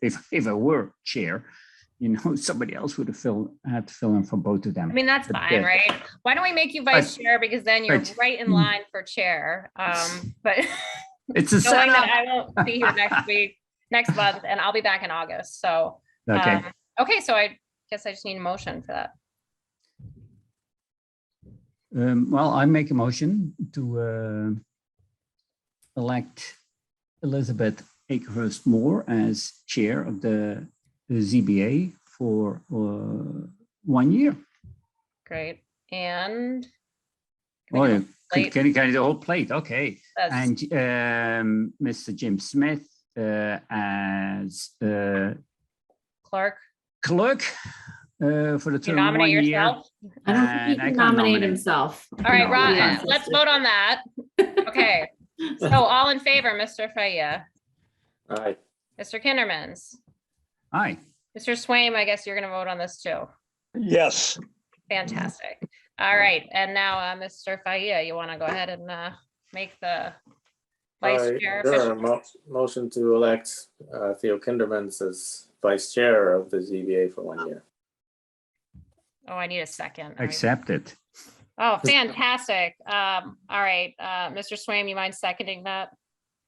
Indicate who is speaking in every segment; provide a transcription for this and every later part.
Speaker 1: if if I were chair, you know, somebody else would have filled had to fill in for both of them.
Speaker 2: I mean, that's
Speaker 1: But
Speaker 2: fine,
Speaker 1: that-
Speaker 2: right? Why don't we make you vice chair because then you're
Speaker 1: right. Mm.
Speaker 2: right in line for chair. Um, but
Speaker 1: it's a
Speaker 2: knowing that
Speaker 1: setup.
Speaker 2: I won't be here next week, next month, and I'll be back in August. So,
Speaker 1: Okay,
Speaker 2: um, okay, so I guess I just need a motion for that.
Speaker 1: um, well, I make a motion to uh, elect Elizabeth Akehurst Moore as chair of the the ZBA for uh, one year.
Speaker 2: Great. And Can
Speaker 1: Oh,
Speaker 2: we
Speaker 1: yeah. Can,
Speaker 2: go plate?
Speaker 1: can you- can you do the whole plate? Okay.
Speaker 2: that's-
Speaker 1: And um, Mr. Jim Smith uh, as uh,
Speaker 2: Clark,
Speaker 1: clerk uh, for the
Speaker 2: you
Speaker 1: term of one
Speaker 2: nominate
Speaker 1: year.
Speaker 2: yourself.
Speaker 3: I don't think he
Speaker 1: And I
Speaker 3: can
Speaker 1: can
Speaker 3: nominate
Speaker 1: nominate.
Speaker 3: himself.
Speaker 2: All right,
Speaker 3: No,
Speaker 2: Ron,
Speaker 3: yeah.
Speaker 2: let's vote on that. Okay. So all in favor, Mr. Faya,
Speaker 4: Aye.
Speaker 2: Mr. Kindermans,
Speaker 1: Aye.
Speaker 2: Mr. Swaim, I guess you're going to vote on this too.
Speaker 4: Yes.
Speaker 2: Fantastic.
Speaker 1: Mm-hmm.
Speaker 2: All right, and now, uh, Mr. Faya, you want to go ahead and, uh, make the
Speaker 4: Aye.
Speaker 2: vice chair
Speaker 4: Sure.
Speaker 2: official?
Speaker 4: Mo- Motion to elect uh, Theo Kindermans as vice chair of the ZBA for one year.
Speaker 2: Oh, I need a second. All right.
Speaker 1: Accept it.
Speaker 2: Oh, fantastic. Um, all right, uh, Mr. Swaim, you mind seconding that?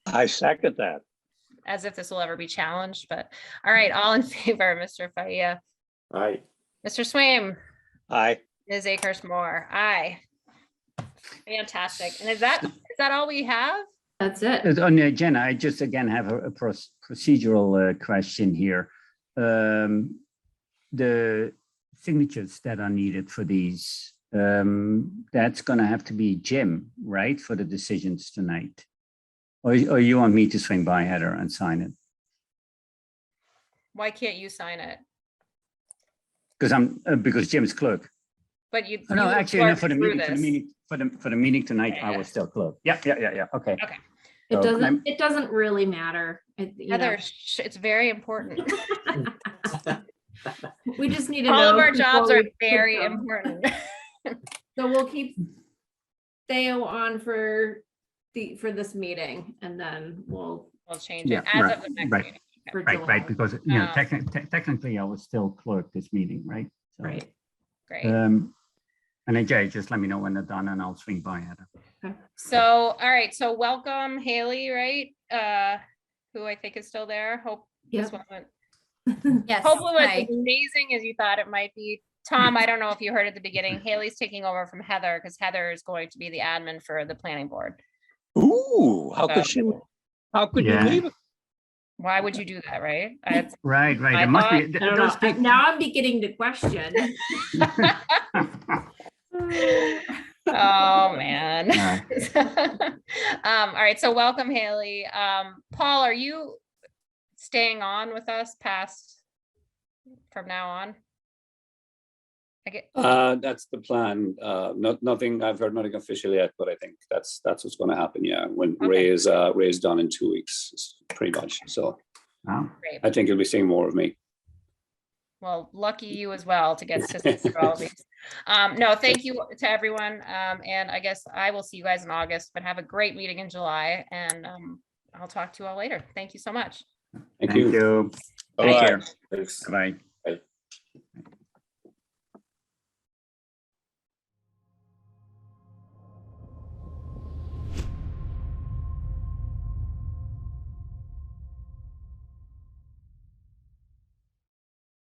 Speaker 5: I second that.
Speaker 2: As if this will ever be challenged, but, all right, all in favor, Mr. Faya,
Speaker 4: Aye.
Speaker 2: Mr. Swaim,
Speaker 5: I,
Speaker 2: Ms. Akers Moore, aye. Fantastic. And is that, is that all we have?
Speaker 3: That's it.
Speaker 1: Uh, On the agenda, I just again have a a proc- procedural uh, question here. Um, The signatures that are needed for these, um, that's going to have to be Jim, right, for the decisions tonight? Or or you want me to swing by, Heather, and sign it?
Speaker 2: Why can't you sign it?
Speaker 1: Because I'm, uh, because Jim's clerk.
Speaker 2: But you.
Speaker 1: Oh, No,
Speaker 2: you
Speaker 1: actually, no,
Speaker 2: worked
Speaker 1: for the
Speaker 2: through
Speaker 1: meeting, for the
Speaker 2: this.
Speaker 1: meeting, for the, for the meeting tonight, I
Speaker 2: Yeah.
Speaker 1: was still clerk. Yeah, yeah, yeah, yeah, okay.
Speaker 3: It
Speaker 1: So, I'm-
Speaker 3: doesn't, it doesn't really matter. It- you know,
Speaker 2: Heather, sh- it's very important.
Speaker 3: We just need to know.
Speaker 2: All of our
Speaker 3: before
Speaker 2: jobs are
Speaker 3: we put
Speaker 2: very
Speaker 3: them.
Speaker 2: important.
Speaker 3: So we'll keep Theo on for the, for this meeting and then we'll.
Speaker 2: We'll change
Speaker 1: Yeah,
Speaker 2: it as
Speaker 1: right,
Speaker 2: of the next
Speaker 1: right.
Speaker 2: meeting.
Speaker 3: for
Speaker 1: Right, right,
Speaker 3: July.
Speaker 1: because, you know,
Speaker 2: Um,
Speaker 1: techni- te- technically, I was still clerk this meeting, right? So,
Speaker 3: Right.
Speaker 2: Great.
Speaker 1: Um, and then Jay, just let me know when they're done and I'll swing by, Heather.
Speaker 2: So, all right, so welcome Haley, right? Uh, who I think is still there. Hope this
Speaker 3: Yep.
Speaker 2: one went,
Speaker 6: Yes.
Speaker 2: hopefully it
Speaker 6: hi.
Speaker 2: was as amazing as you thought it might be. Tom, I don't know if you heard at the beginning, Haley's taking over from Heather because Heather is going to be the admin for the planning board.
Speaker 5: ooh, how
Speaker 2: Uh,
Speaker 5: could she, how could you
Speaker 1: Yeah.
Speaker 5: leave? it?
Speaker 2: Why would you do that, right? That's-
Speaker 1: Right, right,
Speaker 2: I
Speaker 1: it must be.
Speaker 2: thought-
Speaker 1: th-
Speaker 3: I don't
Speaker 1: those
Speaker 3: know. I- Now I'm beginning to question.
Speaker 1: people-
Speaker 2: Oh, man.
Speaker 1: Yeah.
Speaker 2: um, all right, so welcome Haley. Um, Paul, are you staying on with us past from now on? I get,
Speaker 7: Uh, that's the plan. Uh, not, nothing, I've heard nothing official yet, but I think that's, that's what's gonna happen, yeah. When
Speaker 2: Okay.
Speaker 7: Ray is, uh, Ray is done in two weeks, s- pretty much. So
Speaker 1: Wow.
Speaker 2: great.
Speaker 7: I think you'll be seeing more of me.
Speaker 2: Well, lucky you as well to get assistance for all of these. Um, no, thank you to everyone. Um, and I guess I will see you guys in August, but have a great meeting in July and, um, I'll talk to you all later. Thank you so much.
Speaker 7: Thank
Speaker 1: Thank
Speaker 7: you.
Speaker 1: you.
Speaker 7: Bye-bye.
Speaker 1: Take care.
Speaker 4: Thanks.
Speaker 1: Bye.